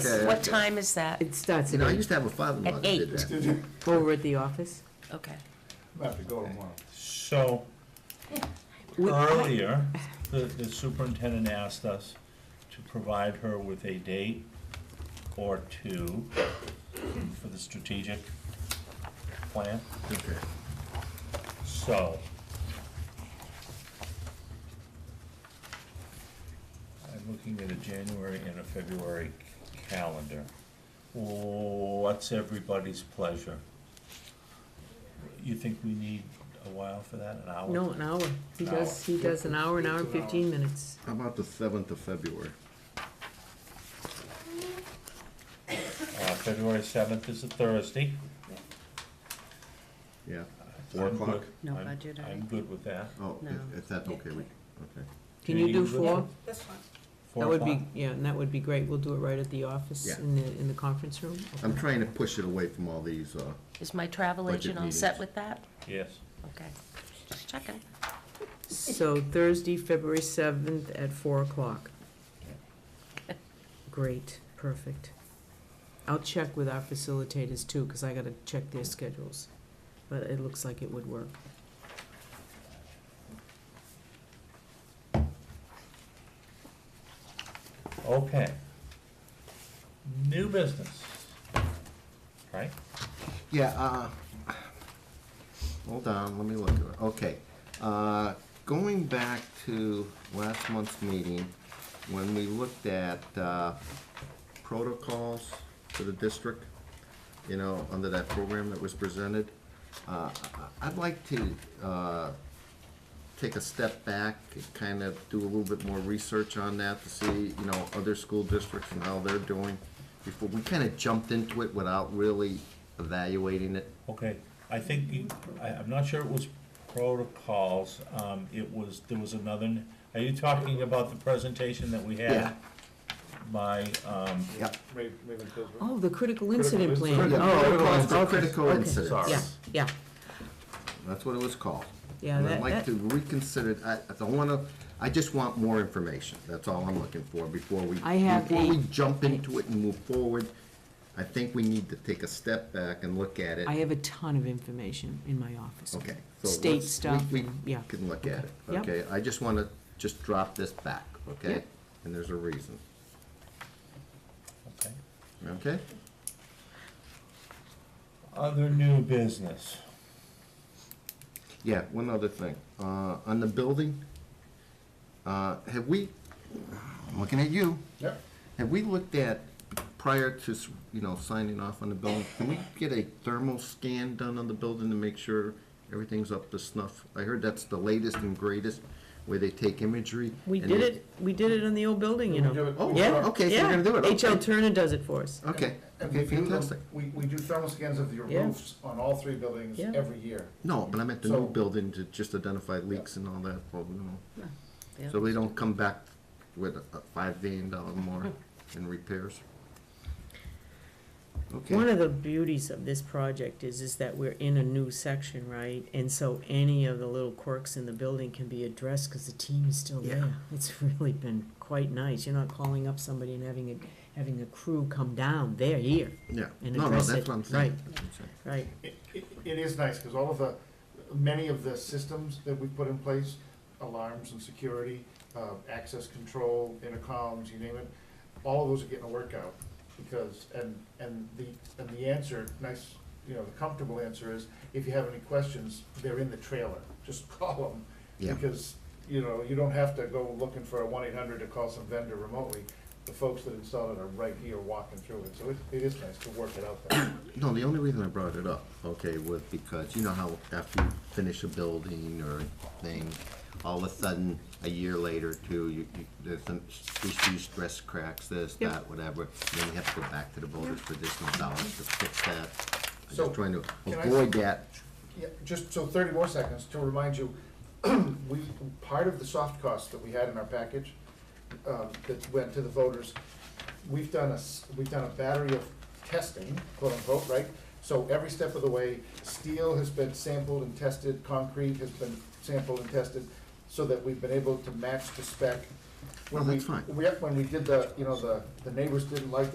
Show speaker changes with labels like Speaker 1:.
Speaker 1: Okay,
Speaker 2: What
Speaker 1: okay.
Speaker 2: time is that?
Speaker 3: It starts
Speaker 1: You know, I
Speaker 3: at,
Speaker 1: used to have a father-in-law
Speaker 2: At
Speaker 1: that did
Speaker 2: eight.
Speaker 1: that.
Speaker 3: over at the office.
Speaker 2: Okay.
Speaker 4: I have to go tomorrow.
Speaker 5: So,
Speaker 3: We-
Speaker 5: earlier, the, the superintendent asked us to provide her with a date or two for the strategic plan,
Speaker 1: Okay.
Speaker 5: so. I'm looking at a January and a February calendar. What's everybody's pleasure? You think we need a while for that, an hour?
Speaker 3: No, an hour. He
Speaker 5: An
Speaker 3: does, he does an hour, an hour and fifteen minutes.
Speaker 1: How about the seventh of February?
Speaker 5: Uh, February seventh is a Thursday.
Speaker 1: Yeah, four
Speaker 5: I'm
Speaker 1: o'clock?
Speaker 5: good.
Speaker 2: No
Speaker 5: I'm-
Speaker 2: budget, I
Speaker 5: I'm
Speaker 2: think.
Speaker 5: good with that.
Speaker 1: Oh,
Speaker 2: No.
Speaker 1: if- if that's
Speaker 2: Yeah,
Speaker 1: okay, we, okay.
Speaker 3: Can you do
Speaker 5: good?
Speaker 3: four?
Speaker 6: That's fine.
Speaker 5: Four
Speaker 3: That would be,
Speaker 5: o'clock?
Speaker 3: yeah, and that would be great. We'll do it right at the office
Speaker 1: Yeah.
Speaker 3: in the, in the conference room.
Speaker 1: I'm trying to push it away from all these, uh,
Speaker 2: Is my travel
Speaker 1: Budget
Speaker 2: agent all set
Speaker 1: meetings.
Speaker 2: with that?
Speaker 5: Yes.
Speaker 2: Okay. Just checking.
Speaker 3: So Thursday, February seventh at four o'clock. Great, perfect. I'll check with our facilitators too, because I gotta check their schedules. But it looks like it would work.
Speaker 5: Okay. New business. Right?
Speaker 1: Yeah, uh, hold on, let me look at it. Okay. Uh, going back to last month's meeting, when we looked at, uh, protocols for the district, you know, under that program that was presented, uh, I- I'd like to, uh, take a step back, and kind of do a little bit more research on that to see, you know, other school districts and how they're doing before, we kind of jumped into it without really evaluating it.
Speaker 5: Okay, I think, you- I, I'm not sure it was protocols, um, it was, there was another, n- are you talking about the presentation that we
Speaker 1: Yeah.
Speaker 5: had? My, um,
Speaker 1: Yep.
Speaker 4: Ra- Raven Tisdale.
Speaker 3: Oh, the critical incident
Speaker 4: Critical
Speaker 3: plan.
Speaker 1: incident.
Speaker 3: Oh,
Speaker 1: Critical
Speaker 3: okay,
Speaker 1: incident.
Speaker 3: okay,
Speaker 1: Critical
Speaker 3: okay.
Speaker 1: incident.
Speaker 3: Yeah,
Speaker 5: Sorry.
Speaker 3: yeah,
Speaker 1: That's what it was called.
Speaker 3: Yeah,
Speaker 1: And I'd
Speaker 3: that-
Speaker 1: like
Speaker 3: that-
Speaker 1: to reconsider, I, I don't want to, I just want more information. That's all I'm looking for before we,
Speaker 3: I have
Speaker 1: before we
Speaker 3: a-
Speaker 1: jump into it and move forward. I think we need to take a step back and look at it.
Speaker 3: I have a ton of information in my office.
Speaker 1: Okay. so
Speaker 3: State
Speaker 1: let's- we-
Speaker 3: stuff,
Speaker 1: We
Speaker 3: and- yeah.
Speaker 1: can look at it,
Speaker 3: Yep.
Speaker 1: okay? I just want to just drop this back, okay?
Speaker 3: Yep.
Speaker 1: And there's a reason,
Speaker 5: okay,
Speaker 1: okay?
Speaker 5: other new business.
Speaker 1: Yeah, one other thing. Uh, on the building, uh, have we, I'm looking at you,
Speaker 4: Yep.
Speaker 1: have we looked at, prior to, s- you know, signing off on the building, can we get a thermal scan done on the building to make sure everything's up to snuff? I heard that's the latest and greatest, where they take imagery.
Speaker 3: We
Speaker 1: and
Speaker 3: did
Speaker 1: they-
Speaker 3: it, we did it in the old bulding, you
Speaker 4: We do
Speaker 3: know.
Speaker 4: it-
Speaker 1: Oh,
Speaker 4: we
Speaker 3: Yeah,
Speaker 4: do it-
Speaker 1: okay, so
Speaker 3: yeah.
Speaker 1: you're gonna do it,
Speaker 3: H.L.
Speaker 1: okay.
Speaker 3: Turner does it for us.
Speaker 1: Okay,
Speaker 4: and
Speaker 1: okay,
Speaker 4: we do them-
Speaker 1: fantastic.
Speaker 4: We, we do thermal scans of your
Speaker 3: Yeah.
Speaker 4: roofs on all three buildings
Speaker 3: Yeah.
Speaker 4: every year.
Speaker 1: No, but I meant the new
Speaker 4: So-
Speaker 1: building to just identify leaks and all that, well, you know.
Speaker 2: Yeah.
Speaker 1: So they don't come back with a a five billion dollar more in repairs.
Speaker 3: One
Speaker 1: Okay,
Speaker 3: of the beauties of this project is, is that we're in a new section, right? And so any of the little quirks in the building can be addressed because the team's still
Speaker 1: Yeah.
Speaker 3: there. It's really been quite nice. You're not calling up somebody and having a, having a crew come down. They're here,
Speaker 1: yeah,
Speaker 3: and
Speaker 1: no, no,
Speaker 3: address
Speaker 1: that's
Speaker 3: it,
Speaker 1: what I'm saying.
Speaker 3: right?
Speaker 4: It, it, it is nice, because all of the, many of the systems that we put in place, alarms and security, uh, access control, intercoms, you name it, all of those are getting a workout, because, and, and the, and the answer, nice, you know, the comfortable answer is, if you have any questions, they're in the trailer, just call them.
Speaker 1: Yeah.
Speaker 4: Because, you know, you don't have to go looking for a one eight hundred to call some vendor remotely, the folks that installed it are right here walking through it, so it, it is nice to work it out there.
Speaker 1: No, the only reason I brought it up, okay, was because you know how after you finish a building or a thing, all of a sudden, a year later too, you, you, there's some issues, stress cracks, this,
Speaker 3: Yep.
Speaker 1: that, whatever. Then you have to go back to the voters for additional dollars to fix that. I'm
Speaker 4: So,
Speaker 1: just trying to
Speaker 4: can I-
Speaker 1: avoid that.
Speaker 4: Yeah, just so thirty more seconds to remind you, we, part of the soft costs that we had in our package, um, that went to the voters, we've done a, s- we've done a battery of testing, quote unquote, right? So every step of the way, steel has been sampled and tested, concrete has been sampled and tested, so that we've been able to match the spec.
Speaker 1: Well,
Speaker 4: When we-
Speaker 1: that's fine.
Speaker 4: We, when we did the, you know, the, the neighbors didn't like